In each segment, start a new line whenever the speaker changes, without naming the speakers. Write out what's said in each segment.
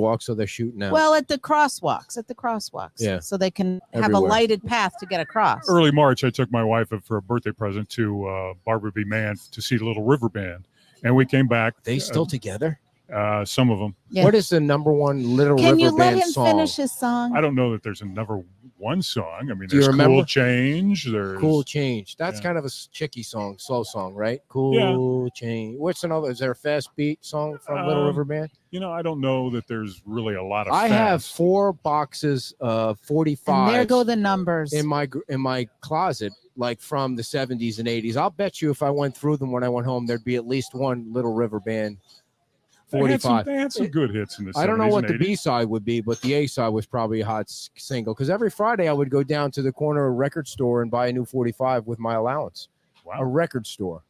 walk, so they're shooting out.
Well, at the crosswalks, at the crosswalks.
Yeah.
So they can have a
Everywhere.
lighted path to get across.
early March, I took my wife for a birthday present to uh, Barbara B. Mann to see the Little River Band, and we came back.
they still together.
uh, uh, some of them.
Yeah.
What is the number one Little
Can
River
you let
Band
him
song?
finish his song?
I don't know that there's another one song. I mean,
Do you
there's
remember?
cool change. There's
Cool change. That's
Yeah.
kind of a s- chicky song, slow song, right? Cool change. What's another? Is there a fast beat song from Little
Um,
River Band?
You know, I don't know that there's really a lot of.
I have
fast.
four boxes of
and
forty-five.
there go the numbers.
in my gr- in my closet like from the 70s and 80s i'll bet you if i went through them when i went home there'd be at least one little river band
They had some-
45
They had some good hits in the.
i don't know
70s
what the
and 80s.
b-side would be but the a-side was probably a hot s- single because every friday i would go down to the corner of a record store and buy a new 45 with my allowance a
Wow.
record store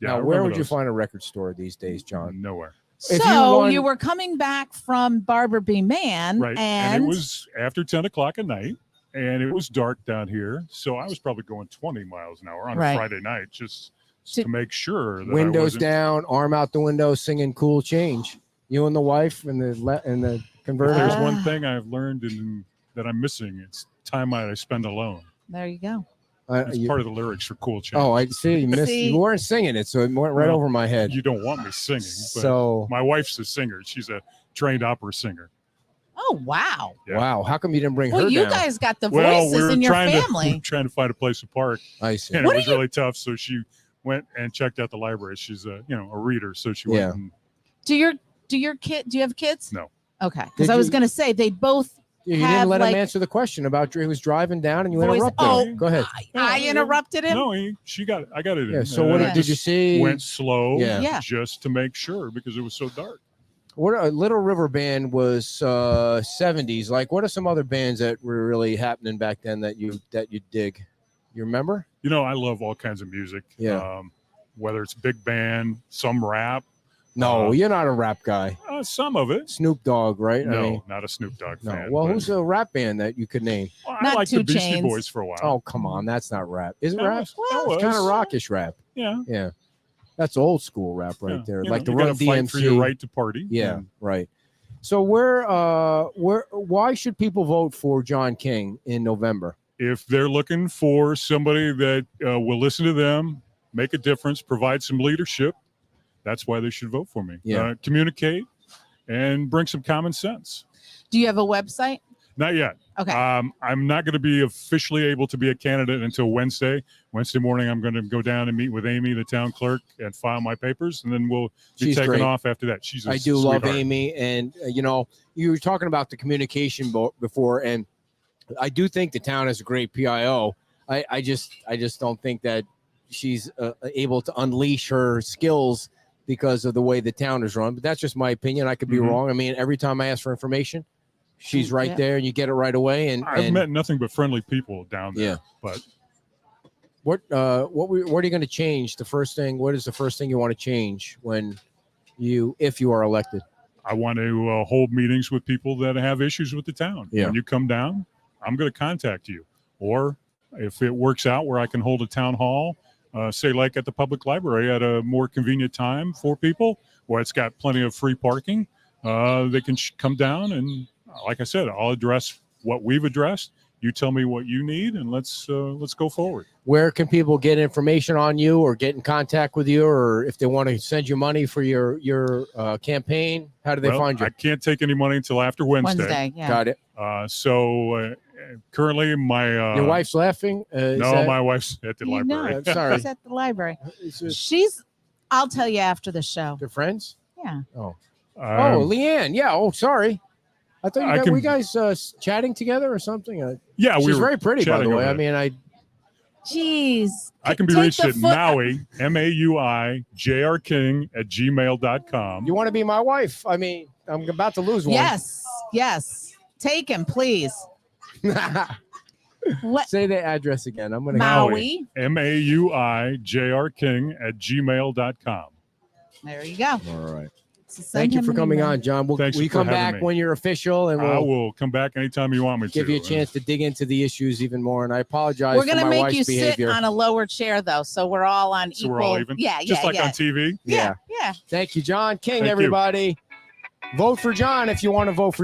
Yeah,
now
I
where
remember
would you
those.
find a record store these days john
Nowhere.
if you
so you,
want-
were coming back from Barbara B. Mann,
Right.
and,
it was after ten o'clock at night, and it was dark down here, so I was probably going twenty miles an hour on
Right.
a Friday night just
To-
to, make sure that I
windows
wasn't-
down arm out the window singing cool change you and the wife and the le- and the
If
converter
there's
Ah.
one thing I've learned and that I'm missing, it's time I spend alone.
there you go.
Uh,
It's
you-
part of the lyrics for Cool Change.
Oh, I see. You missed.
See?
You weren't singing it, so it went right
Well,
over my head.
you don't want me singing, but
So
my wife's a singer. She's a trained opera singer.
Oh wow!
yeah.
wow, how come you didn't bring her
Well, you
down?
guys got the
well,
voices
we were
in your
trying to we were
family.
trying to find a place to park,
I see.
and
What
it was really tough. So she went and checked out the library. She's a you know a reader, so she
Yeah.
went. And,
do your do your kid? Do you have kids?
No.
Okay, because
Did
I was
you-
going to say they both.
You
have,
didn't let
like-
him answer the question about he was driving down, and you
Voice-
interrupted.
Oh.
him. Go ahead.
Yeah,
I
yeah.
interrupted him.
no, he, she got. It. I got it.
Yeah.
in.
So
And
what
I
Yeah.
did you
just
see?
Went slow,
Yeah.
Yeah.
just to make sure because it was so dark.
What uh, Little River Band was uh, '70s. Like, what are some other bands that were really happening back then that you that you dig? You remember?
you know, I love all kinds of music.
Yeah.
Um, whether it's big band, some rap,
No,
Uh,
you're not a rap guy.
uh, some of it.
Snoop Dogg, right?
No, not a Snoop Dogg
no.
fan.
Well,
but-
who's a rap band that you could name?
Well, I
Not
like
Two
the Beastie
Chains.
Boys for a while.
Oh, come on, that's not rap. Is it
That
rap?
was-
Well,
that
It's kind of
was-
rockish rap.
Yeah.
Yeah. That's old school rap right
yeah.
there.
You
like
know,
the
you
Run
gotta fight for your
DMC.
right to party.
Yeah,
and
right. So where uh where why should people vote for John King in November?
If they're looking for somebody that uh, will listen to them, make a difference, provide some leadership, that's why they should vote for me.
Yeah.
Uh, communicate and bring some common sense.
Do you have a website?
Not yet.
Okay.
Um, I'm not going to be officially able to be a candidate until Wednesday. Wednesday morning, I'm going to go down and meet with Amy, the town clerk, and file my papers, and then we'll be
She's
taken
great.
off after that. She's a
I do love
sweetheart.
Amy and uh, you know, you were talking about the communication bo- before and I do think the town has a great PIO. I I just I just don't think that she's uh, able to unleash her skills because of the way the town is run, but that's just my opinion. I could be
Mhm.
wrong. I mean, every time I ask for information, she's right
Yeah.
there and you get it right away and,
I've
and
met nothing but friendly people down there.
Yeah.
But
What uh what we what are you going to change? The first thing, what is the first thing you want to change when you if you are elected?
I want to uh, hold meetings with people that have issues with the town.
Yeah.
When you come down, I'm going to contact you. Or if it works out where I can hold a town hall, uh, say like at the public library at a more convenient time for people where it's got plenty of free parking, uh, they can sh- come down and, like I said, I'll address what we've addressed. You tell me what you need, and let's uh, let's go forward.
Where can people get information on you or get in contact with you or if they want to send you money for your your uh, campaign? How do they
Well,
find you?
I can't take any money until after Wednesday.
Wednesday. Yeah.
Got it.
Uh, so uh, currently, my uh,
your wife's laughing. Uh, is
no,
that-
my wife's at the
You
library. Um,
know,
I'm sorry.
She's at the library.
is this
She's. I'll tell you after the show.
their friends.
Yeah.
Oh,
Um,
oh, Leanne. Yeah. Oh, sorry. I thought you
I
guys,
can-
we guys uh, s- chatting together or something. Uh,
yeah, we
she's
were,
very pretty, by the
chatting
way.
over
I
there.
mean, I
Jeez.
I can be
Take
reached
the
at
foot-
Maui, M A U I J R King at gmail.com.
you want to be my wife. I mean, I'm about to lose one.
Yes. Yes. Take him, please. What?
Say the address again. I'm gonna
Maui.
M A U I J R King at gmail.com.
There you go.
All right.
So send
Thank you
him
for
an
coming
email.
on, John. We'll,
Thanks
will you
for
come
having
back
me.
when you're official, and
I
we'll
will come back anytime you want me
give
to.
you a chance to dig into the issues even more. And I apologize
We're
for
gonna
my
make
wife's
you
behavior.
sit on a lower chair though, so we're all on
So
equal.
we're all even?
Yeah,
Just
yeah,
like
yeah.
on TV.
yeah, yeah.
Thank you, John King,
Thank you.
everybody. Vote for John if you want to vote for